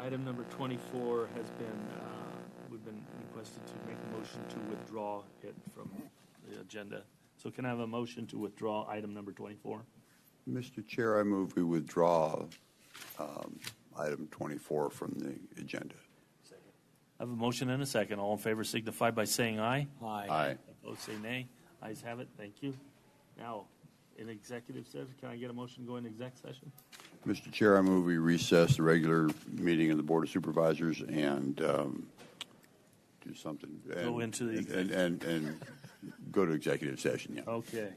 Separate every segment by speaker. Speaker 1: item number twenty-four has been, uh, we've been requested to make a motion to withdraw it from the agenda. So can I have a motion to withdraw item number twenty-four?
Speaker 2: Mr. Chair, I move we withdraw um, item 24 from the agenda.
Speaker 1: I have a motion and a second. All in favor signify by saying aye.
Speaker 2: Aye.
Speaker 1: Opposed, say nay. Ayes have it. Thank you. Now, in executive session, can I get a motion to go into exec session?
Speaker 2: Mr. Chair, I move we recess the regular meeting of the Board of Supervisors and um, do something.
Speaker 1: Go
Speaker 2: and-
Speaker 1: into the Oh,
Speaker 2: and- And, and and go to executive session, yeah.
Speaker 1: Okay.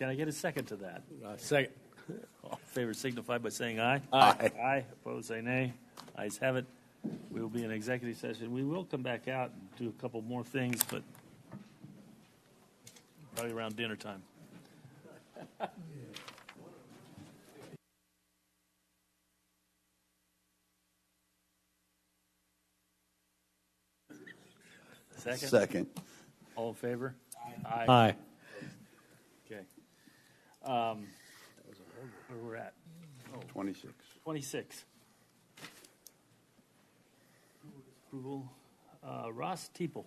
Speaker 1: Can I get a second to that?
Speaker 3: Second.
Speaker 1: All in favor signify by saying aye.
Speaker 2: Aye.
Speaker 1: Aye. Opposed, say nay. Ayes have it. We will be in executive session. We will come back out and do a couple more things, but probably around dinner time. Second?
Speaker 2: Second.
Speaker 1: All in favor? Aye.
Speaker 3: Aye.
Speaker 1: Okay. Um, Where we're at?
Speaker 2: 26.
Speaker 1: 26. Approval, Uh, Ross Teeple.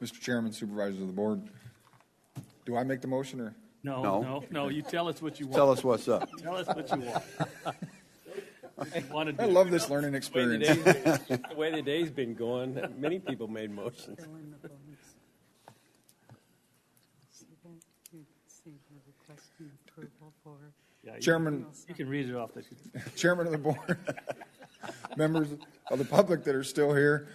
Speaker 4: Mr. Chairman, Supervisors of the Board, do I make the motion, or?
Speaker 1: No,
Speaker 2: No.
Speaker 1: no, no, you tell us what you
Speaker 2: Tell
Speaker 1: want.
Speaker 2: us what's up.
Speaker 1: Tell us what you want. What you want to
Speaker 4: I
Speaker 1: do.
Speaker 4: love this learning
Speaker 3: The way the
Speaker 4: experience.
Speaker 3: day's been- the way the day's been going, many people made motions.
Speaker 5: fill in the blanks. So then you see the request and approval for
Speaker 1: Yeah, you-
Speaker 4: Chairman,
Speaker 1: You can read it off the,
Speaker 4: Chairman of the Board, members of the public that are still here,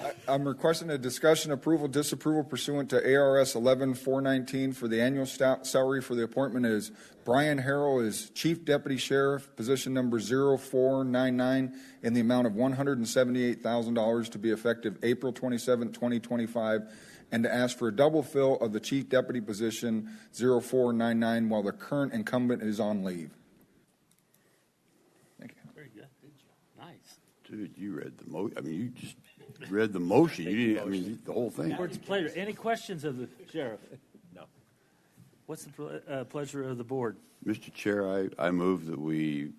Speaker 4: I- I'm requesting a discussion approval, disapproval pursuant to ARS 11419 for the annual sta- salary for the appointment is Brian Harrell is Chief Deputy Sheriff, position number 0499, in the amount of $178,000 to be effective April 27, 2025, and to ask for a double fill of the Chief Deputy position 0499 while the current incumbent is on leave. Thank you.
Speaker 1: very good. Nice.
Speaker 2: Dude, you read the mo, I mean, you just read the motion. You didn't, I mean, the whole thing.
Speaker 1: Board's pleasure. Any questions of the sheriff? No. What's the ple- uh, pleasure of the board?
Speaker 2: Mr. Chair, I, I move that we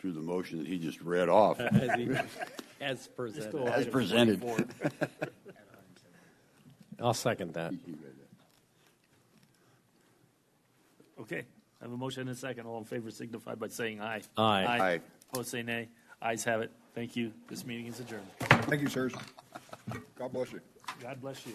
Speaker 2: do the motion that he just read off.
Speaker 3: As he- As
Speaker 1: Let's
Speaker 3: presented.
Speaker 1: go
Speaker 2: As
Speaker 1: item
Speaker 2: presented.
Speaker 1: 24.
Speaker 3: I'll second that.
Speaker 1: Okay, I have a motion and a second. All in favor signify by saying aye.
Speaker 3: Aye.
Speaker 2: Aye.
Speaker 1: Opposed, say nay. Ayes have it. Thank you. This meeting is adjourned.
Speaker 4: Thank you, sirs. God bless you.
Speaker 1: God bless you.